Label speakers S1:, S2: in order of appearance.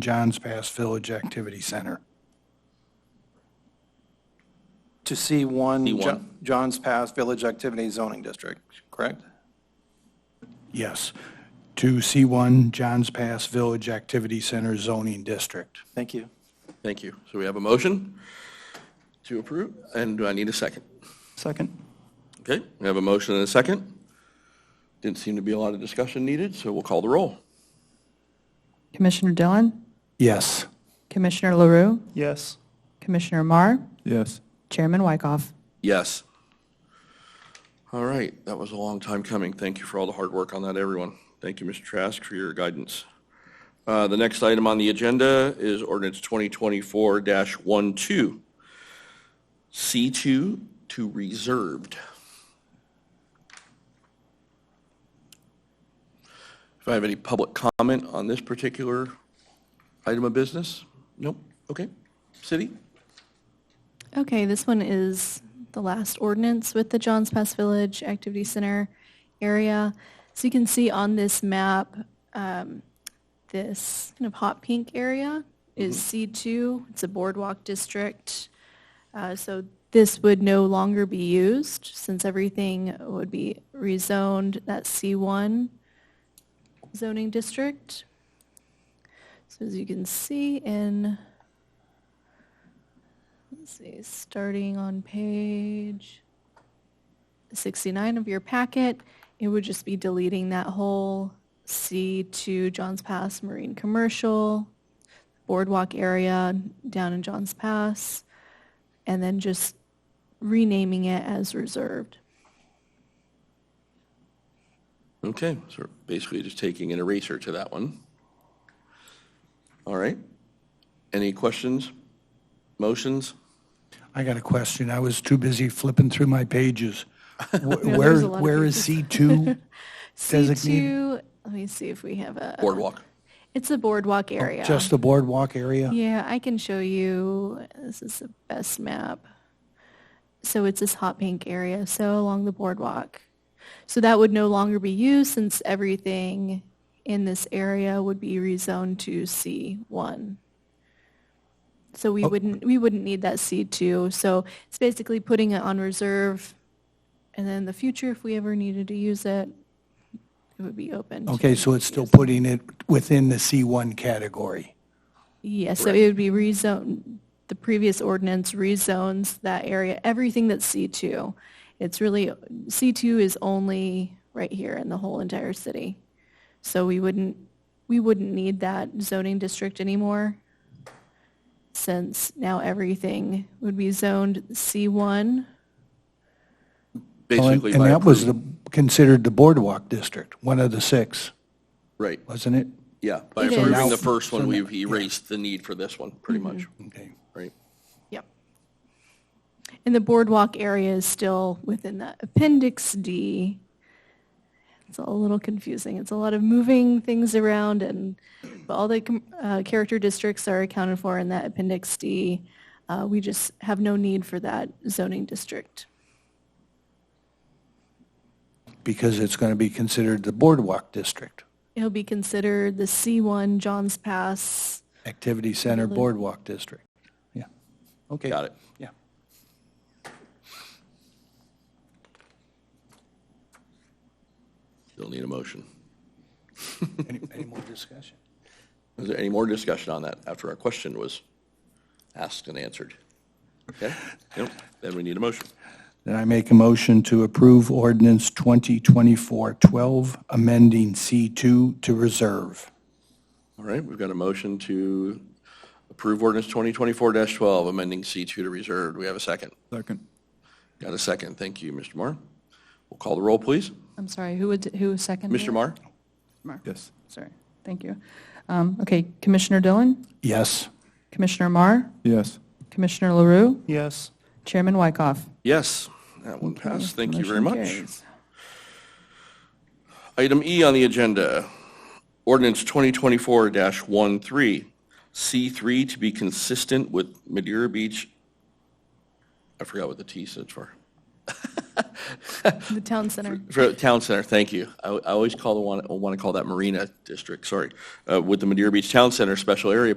S1: John's Pass Village Activity Center.
S2: to C1
S3: C1.
S2: Jo- John's Pass Village Activity Zoning District, correct?
S1: Yes, to C1 John's Pass Village Activity Center zoning district.
S2: Thank you.
S3: Thank you. So we have a motion to approve, and do I need a second?
S2: Second.
S3: Okay, we have a motion and a second. Didn't seem to be a lot of discussion needed, so we'll call the roll.
S4: Commissioner Dillon,
S1: Yes.
S4: Commissioner LaRue,
S2: Yes.
S4: Commissioner Marr,
S5: Yes.
S4: Chairman Wyckoff.
S3: Yes. All right, that was a long time coming. Thank you for all the hard work on that, everyone. Thank you, Mr. Trask, for your guidance. Uh, The next item on the agenda is ordinance 2024-12, C2 to reserved. If I have any public comment on this particular item of business? Nope, okay. City?
S6: Okay, this one is the last ordinance with the Johns Pass Village Activity Center area. So you can see on this map, um, this kind of hot pink area is C2. It's a boardwalk district. Uh, So this would no longer be used since everything would be rezoned that C1 zoning district. So as you can see in Let's see, starting on page 69 of your packet, it would just be deleting that whole C2 Johns Pass Marine Commercial Boardwalk area down in Johns Pass, and then just renaming it as reserved.
S3: Okay, so basically just taking an eraser to that one. All right. Any questions? Motions?
S1: I got a question. I was too busy flipping through my pages. Wh- Where,
S6: there's a lot of
S1: where is C2?
S6: C2, let me see if we have a,
S1: Oh,
S3: Boardwalk?
S6: it's a boardwalk area.
S1: Just the boardwalk area?
S6: Yeah, I can show you. This is the best map. So it's this hot pink area, so along the boardwalk. So that would no longer be used since everything in this area would be rezoned to C1. So
S1: Oh.
S6: we wouldn't, we wouldn't need that C2. So it's basically putting it on reserve. And then in the future, if we ever needed to use it, it would be open.
S1: Okay, so it's still putting it within the C1 category.
S6: Yes, so it would be rezone, the previous ordinance rezones that area, everything that's C2. It's really, C2 is only right here in the whole entire city. So we wouldn't, we wouldn't need that zoning district anymore since now everything would be zoned C1.
S1: Well, Oh, And
S3: Basically
S1: and
S3: by
S1: that was
S3: approving-
S1: the, considered the boardwalk district, one of the six,
S3: Right,
S1: wasn't it?
S3: yeah. By
S6: It is.
S3: approving
S6: Now-
S3: the first one, we've erased the need for this one, pretty much,
S1: Okay.
S3: right?
S6: Yep. And the boardwalk area is still within that Appendix D. It's all a little confusing. It's a lot of moving things around and but all the com- uh, character districts are accounted for in that Appendix D. Uh, We just have no need for that zoning district.
S1: Because it's going to be considered the boardwalk district,
S6: It'll be considered the C1 Johns Pass.
S1: activity center boardwalk district. Yeah. Okay.
S3: Got it.
S1: Yeah.
S3: Still need a motion.
S1: Any, any more discussion?
S3: Is there any more discussion on that after our question was asked and answered? Okay, Nope. then we need a motion.
S1: Then I make a motion to approve ordinance 2024-12, amending C2 to reserve.
S3: All right, we've got a motion to approve ordinance 2024-12, amending C2 to reserved. We have a second.
S5: Second.
S3: Got a second. Thank you, Mr. Marr. We'll call the roll, please.
S4: I'm sorry, who would, who seconded?
S3: Mr.
S4: it?
S3: Marr?
S5: Yes.
S4: Sorry, thank you. Um, Okay, Commissioner Dillon,
S1: Yes.
S4: Commissioner Marr,
S5: Yes.
S4: Commissioner LaRue,
S2: Yes.
S4: Chairman Wyckoff.
S3: Yes, that one passed. Thank you very
S4: Motion
S3: much.
S4: carries.
S3: Item E on the agenda, ordinance 2024-13, C3 to be consistent with Madeira Beach. I forgot what the T stood for.
S6: the town center.
S3: For Town Center, thank you. I, I always call the one, I want to call that Marina District, sorry, uh, with the Madeira Beach Town Center Special Area